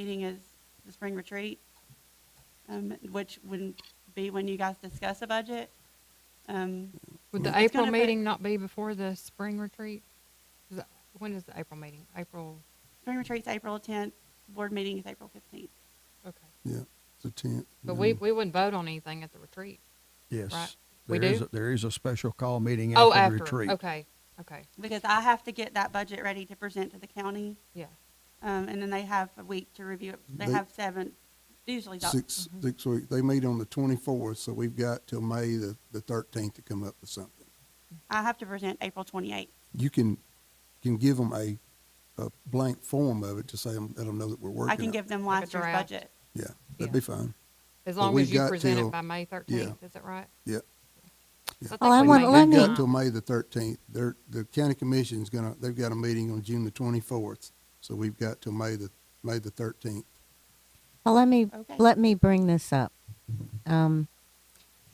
meeting is the spring retreat, um, which would be when you guys discuss a budget. Um, Would the It's April gonna be- meeting not be before the spring retreat? Is that- When is the April meeting? April, spring retreat's April tenth, board meeting is April fifteenth. okay. Yeah, it's the mm-hmm. tenth. But we, we wouldn't vote on anything at the retreat. right. Yes. We There is do? a- There is a special call meeting Oh, after the after, retreat. okay, okay, Because I have to get that budget ready to present to the county, yeah. um, and then they have a week to review it. They They- have seven, usually. doc- Mm-hmm. Six, six weeks. They meet on the twenty-fourth, so we've got till May the, the thirteenth to come up with something. I have to present April twenty-eighth. You can, can give them a, a blank form of it to say, let them know that we're working. I can on it. give them last year's draft. budget. Yeah, yeah. that'd be fine. As But long we've as you got present till- it by May thirteenth, is that right? Yeah. So Yeah. think Oh, I we want- may let have They've got time. till May the thirteenth. They're, the county commission's gonna, they've got a meeting on June the twenty-fourth. So we've got till May the, May the thirteenth. Well, let me Okay. let me bring this up. Um,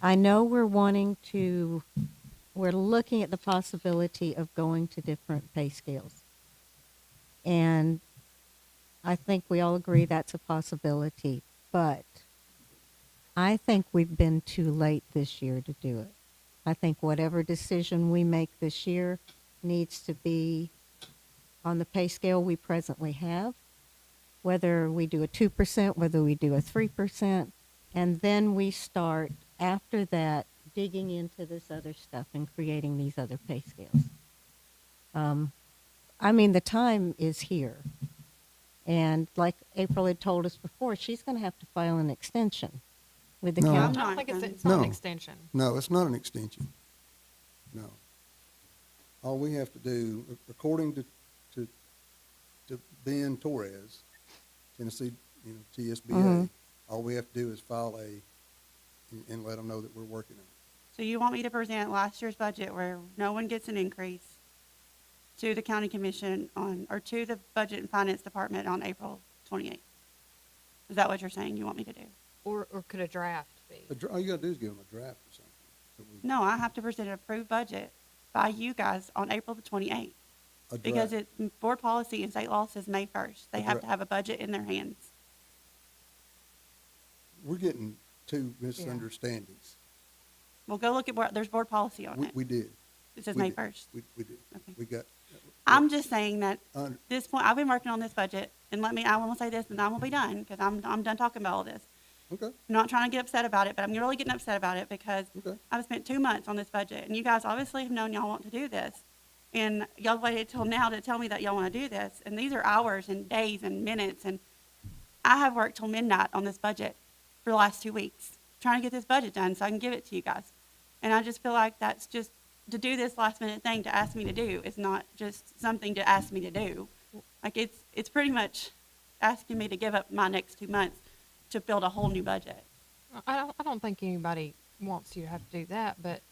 I know we're wanting to, we're looking at the possibility of going to different pay scales, and I think we all agree that's a possibility. But I think we've been too late this year to do it. I think whatever decision we make this year needs to be on the pay scale we presently have whether we do a 2%, whether we do a 3%, and then we start after that digging into this other stuff and creating these other pay scales. Um, I mean, the time is here. And like April had told us before, she's going to have to file an extension with the No. I I'm county. not don't think it's, gonna- it's not an No. extension. No, it's not an extension. No. All we have to do, a- according to, to, to Ben Torres, Tennessee, you know, TSBA, Mm-hmm. Mhm. all we have to do is file a, and, and let them know that we're working on it. So you want me to present last year's budget where no one gets an increase to the county commission on, or to the budget and finance department on April twenty-eighth? Is that what you're saying you want me to do? Or, or could a draft A be? dra- All you gotta do is give them a draft or something. that we- No, I have to present an approved budget by you guys on April the twenty-eighth. a Because draft. it, board policy and state law says May first. They have Right. to have a budget in their hands. We're getting two misunderstandings. Well, go look at, where there's board policy on We, it. we did, It says we May did. first. we, we did. Okay. We got, I'm just saying that uh, this point, I've been working on this budget, and let me, I want to say this, and I will be done, because I'm, I'm done talking about all this. okay, I'm not trying to get upset about it, but I'm really getting upset about it because okay. I've spent two months on this budget, and you guys obviously have known y'all want to do this. And y'all waited till now to tell me that y'all want to do this, and these are hours and days and minutes, and I have worked till midnight on this budget for the last two weeks, trying to get this budget done so I can give it to you guys. And I just feel like that's just, to do this last minute thing to ask me to do is not just something to ask me to do. Like, it's, it's pretty much asking me to give up my next two months to build a whole new budget. I don't, I don't think anybody wants you to have to do that, but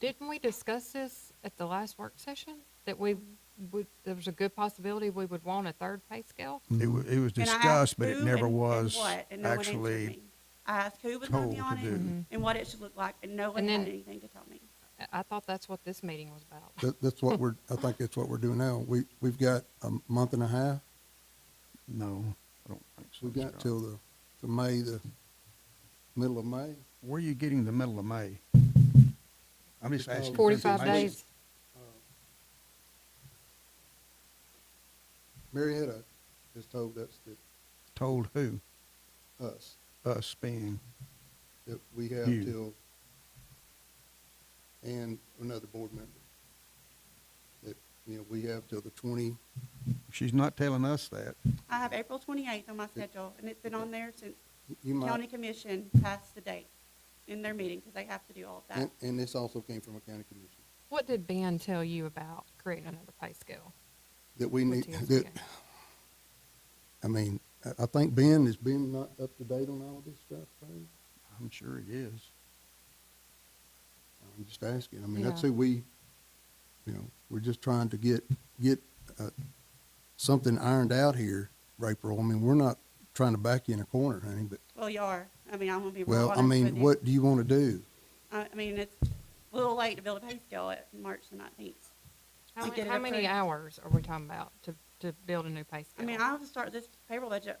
didn't we discuss this at the last work session? That we would, there was a good possibility we would want a third pay scale? It was, it was And I asked discussed, but it who and- never and was what, and no one answered actually, me. I asked who was going to be told on to do. it Mhm. and what it should look like, and no one Mm-hmm. And had then- anything to tell me. I- I thought that's what this meeting was about. That, that's what we're, I think that's what we're doing now. We, we've got a month and a half no, I don't think so. We got Scott. till the, to May, the middle of May. Where are you getting the middle of May? I'm just asking. for Forty-five information. days. Marietta has told us that, Told who? us, Us being, that we have You. till, and another board member. That, you know, we have till the twenty, she's not telling us that. I have April twenty-eighth on my schedule, and it's been on there since you county might, commission passed the date in their meeting, because they have to do all of that. and, and this also came from a county commission. What did Ben tell you about creating another pay scale? That we with need, TSBA? that, I mean, I, I think Ben, is Ben not up to date on all this stuff, Barry? I'm sure it is. I'm just asking. I mean, that's Yeah. who we, you know, we're just trying to get, get, uh, something ironed out here, April. I mean, we're not trying to back you in a corner, honey, but, Well, you are, I mean, I'm gonna be real well, I honest with mean, you. what do you want to do? I, I mean, it's a little late to build a pay scale at March the nineteenth. How to many, get it how many approved. hours are we talking about to, to build a new pay I scale? mean, I have to start this payroll budget